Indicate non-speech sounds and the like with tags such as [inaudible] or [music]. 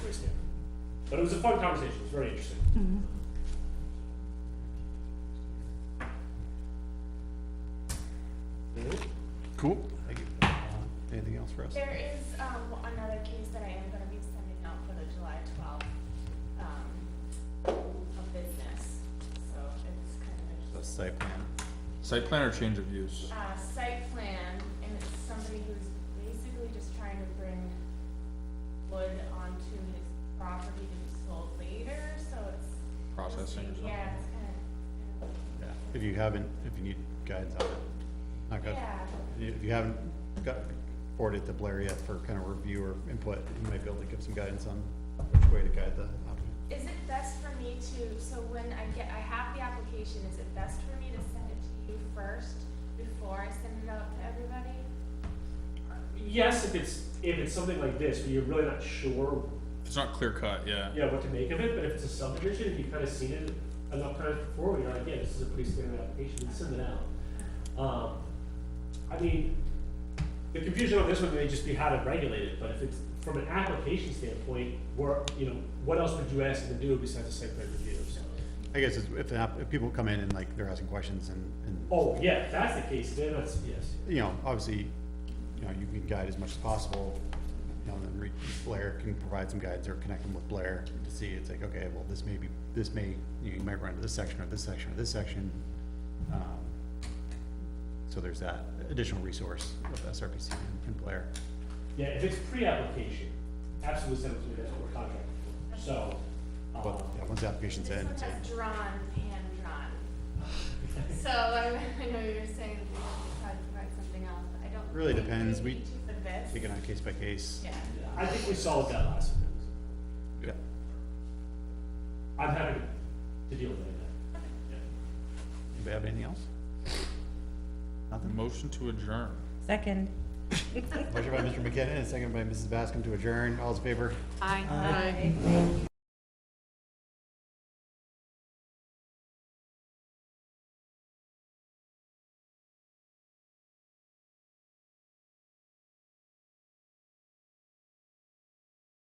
But it was a fun conversation, it was very interesting. Cool. Anything else for us? There is, um, another case that I am gonna be sending out for the July twelfth, um, a business, so it's kind The of, site plan. Site plan or change of use? uh, site plan, and it's somebody who's basically just trying to bring wood onto his property to be sold later, so it's. Processing or something. Yeah, it's kind of, Yeah. If you haven't, if you need guidance on it, not good. yeah, If you haven't got, forwarded to Blair yet for kind of review or input, you might be able to give some guidance on which way to guide the applicant. is it best for me to, so when I get, I have the application, is it best for me to send it to you first before I send it out to everybody? Yes, if it's, if it's something like this, where you're really not sure, If It's not clear cut, yeah. yeah, what to make of it, but if it's a subdivision, if you've kind of seen it enough times before, you're like, yeah, this is a pretty standard application, we send it out. Um, I mean, the confusion on this one may just be how to regulate it, but if it's, from an application standpoint, where, you know, what else would you ask them to do besides a site plan review, so. I guess it's- if, the app- if people come in and like they're asking questions and, and, Oh, yeah, if that's the case, then that's, yes. you know, obviously, you know, you can guide as much as possible. You know, and then re- Blair can provide some guidance or connect them with Blair to see, it's like, okay, well, this may be, this may, you know, you might run into this section or this section or this section. Um, So there's that additional resource of SRPC and Blair. Yeah, if it's pre-application, absolutely send it to me, that's what we're contracted for, so. um, But, yeah, once the application's in, This it's one like, has drawn, hand drawn. [laughs] So I, I know you're saying that we should try to provide something else, but I don't. Really think depends. we We- need to for this. taken on case by case. Yeah, yeah, I think we solved that last one. Yeah. I'm happy to deal with any of that. Yeah. Anybody have anything else? Nothing? Motion to adjourn. Second. Motion by Mr. McKinnon and second by Mrs. Bascom to adjourn. All's in favor? Aye.